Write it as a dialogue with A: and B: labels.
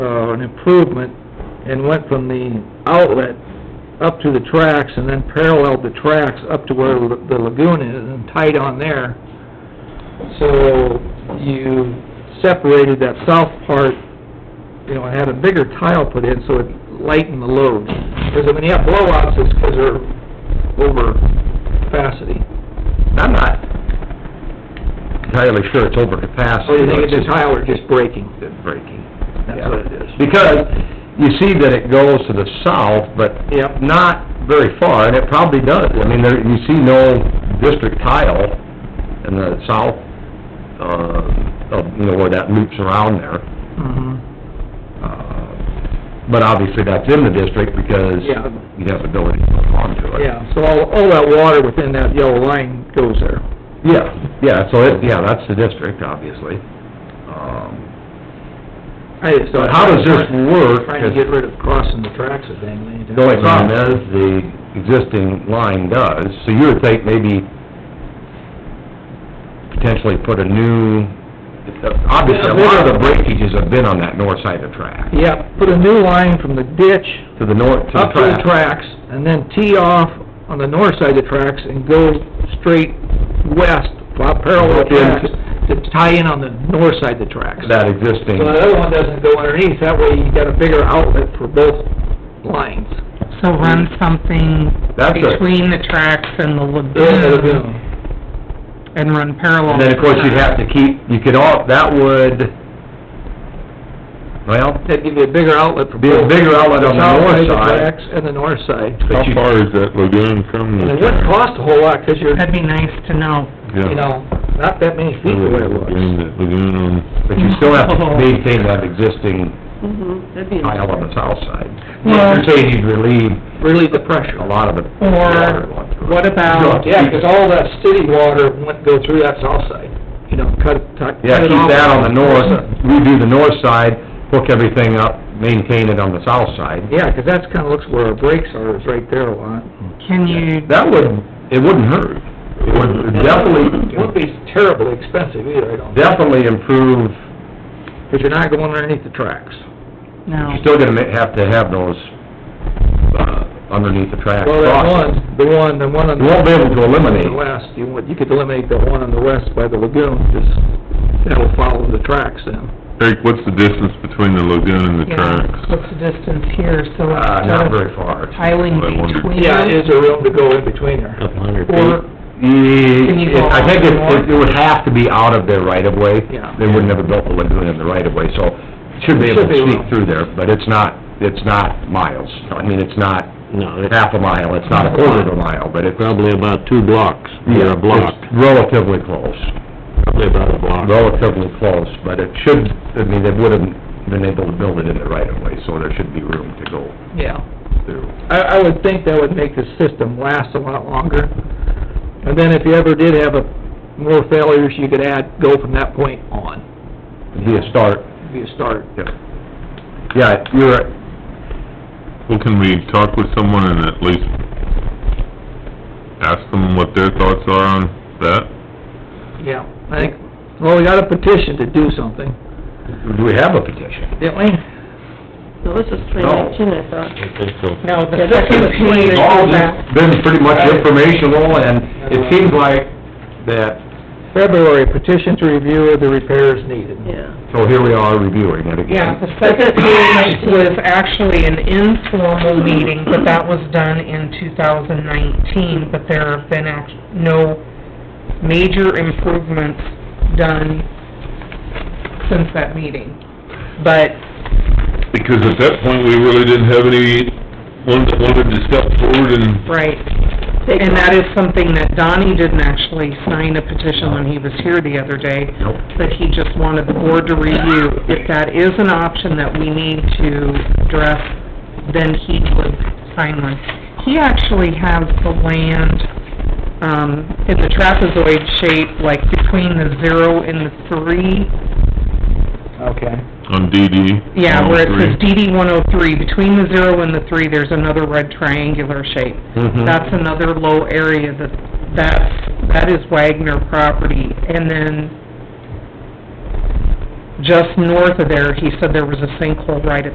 A: uh, an improvement and went from the outlet up to the tracks and then paralleled the tracks up to where the lagoon is and tied on there. So you separated that south part, you know, and had a bigger tile put in so it lightened the load. Because when you have blowouts, it's because they're over capacity.
B: I'm not entirely sure it's over capacity.
A: So you think it's
B: but
A: a tile or just breaking?
B: just breaking.
A: That's what it is.
B: Because you see that it goes to the south, but
A: Yep.
B: not very far, and it probably does. I mean, there, you see no district tile in the south, uh, of, you know, where that loops around there.
A: Mhm.
B: Uh, But obviously, that's in the district because
A: Yeah.
B: you have ability to hook onto it.
A: Yeah, so all, all that water within that yellow line goes there.
B: Yeah, yeah, so it, yeah, that's the district, obviously. Um,
A: I just thought.
B: But how does this work?
A: Trying to get rid of crossing the tracks a dang many times.
B: The only problem is, the existing line does, so you would think maybe potentially put a new, obviously, a lot of the breakages have been on that north side of the track,
A: Yeah, put a new line from the ditch
B: to the north, to the
A: up to the
B: track.
A: tracks, and then tee off on the north side of the tracks and go straight west, flat parallel
B: Look into-
A: tracks, to tie in on the north side of the tracks.
B: That existing,
A: So the other one doesn't go underneath, that way you got a bigger outlet for both lines.
C: So run something
B: Mm-hmm. That's a-
C: between the tracks and the lagoon, and run parallel.
B: and then, of course, you'd have to keep, you could all, that would, well,
A: That'd give you a bigger outlet for
B: Be a
A: both.
B: bigger outlet on the
A: south
B: north
A: of the
B: side.
A: tracks And the north side.
B: but
D: How
B: you,
D: far is that lagoon from the
A: And
D: track?
A: it wouldn't cost a whole lot, 'cause you're,
C: That'd be nice to know.
D: Yeah.
A: you know, not that many feet
D: Remember
A: away
D: that
A: it
D: lagoon,
A: was.
D: that lagoon on,
B: but you still have to maintain that existing
E: Mm-hmm, that'd be
B: tile on the south side.
C: Well-
B: You're saying you'd relieve
A: Really the pressure.
B: a lot of the water
C: Or
B: going through it.
C: what about,
A: Um, Yeah, 'cause all that city water wouldn't go through that south side, you know, cut, cut.
B: Yeah,
A: cut it
B: keep
A: off.
B: that on the north, redo the north side, hook everything up, maintain it on the south side.
A: Yeah, 'cause that's kinda looks where our brakes are, is right there a lot.
C: can you,
B: That would, it wouldn't hurt. It would
A: It wouldn't
B: definitely,
A: be terribly expensive either, I don't think,
B: definitely improve,
A: 'cause you're not going underneath the tracks.
C: no,
B: you're still gonna ma- have to have those, uh, underneath the track
A: Well, that
B: crossings.
A: one, the one, the one on
B: You
A: the
B: won't be able to eliminate,
A: the west, you would, you could eliminate the one on the west by the lagoon, just, that'll follow the tracks then.
D: Eric, what's the distance between the lagoon and the
C: yeah,
D: tracks?
C: what's the distance here, so
B: uh, not
C: instead of
B: very far.
C: tiling
D: I wondered.
C: between
A: Yeah,
C: them,
A: is there room to go in between there? Mm-hmm.
B: Couple hundred
C: or, you go
B: I think it,
C: out more?
B: it would have to be out of their right of way.
A: Yeah.
B: They wouldn't have built the lagoon in the right of way, so should be able
A: Should be
B: to sneak
A: able.
B: through there, but it's not, it's not miles. I mean, it's not half a mile, it's not a quarter of a mile, but it's...
F: Probably about two blocks,
B: yeah,
F: or a block,
B: it's Relatively close,
F: probably about a block.
B: relatively close, but it should, I mean, they would have been able to build it in the right of way, so there should be room to go
A: Yeah.
B: through.
A: I, I would think that would make the system last a lot longer. And then if you ever did have a, more failures, you could add, go from that point on,
B: It'd Be a start,
A: It'd be a start.
B: yeah, you're,
D: Well, can we talk with someone and at least ask them what their thoughts are on that?
A: Yeah. I think, well, we got a petition to do something,
B: do we have a petition?
A: didn't we?
E: No, this is twenty nineteen, I thought.
F: I think so.
C: no, the
E: Yeah, this
C: second
E: is
C: page
E: way
B: all
C: of
B: this
C: that,
B: been pretty much informational, and it seems like that,
A: February, petition to review of the repairs needed.
E: Yeah,
B: so here we are reviewing it
C: yeah, the
B: again.
C: second page was actually an informal meeting, but that was done in two thousand nineteen, but there have been act, no major improvements done since that meeting. But
D: Because at that point, we really didn't have any one that wanted to step forward and...
C: Right, and that is something that Donnie didn't actually sign a petition when he was here the other day,
B: Nope.
C: but he just wanted the board to review. If that is an option that we need to address, then he would sign one. He actually has the land, um, in the trapezoid shape, like between the zero and the three,
A: Okay.
D: On DD?
C: yeah, where it says
D: 103.
C: DD one oh three, between the zero and the three, there's another red triangular shape.
B: Mhm.
C: That's another low area that, that's, that is Wagner property. And then just north of there, he said there was a sinkhole right at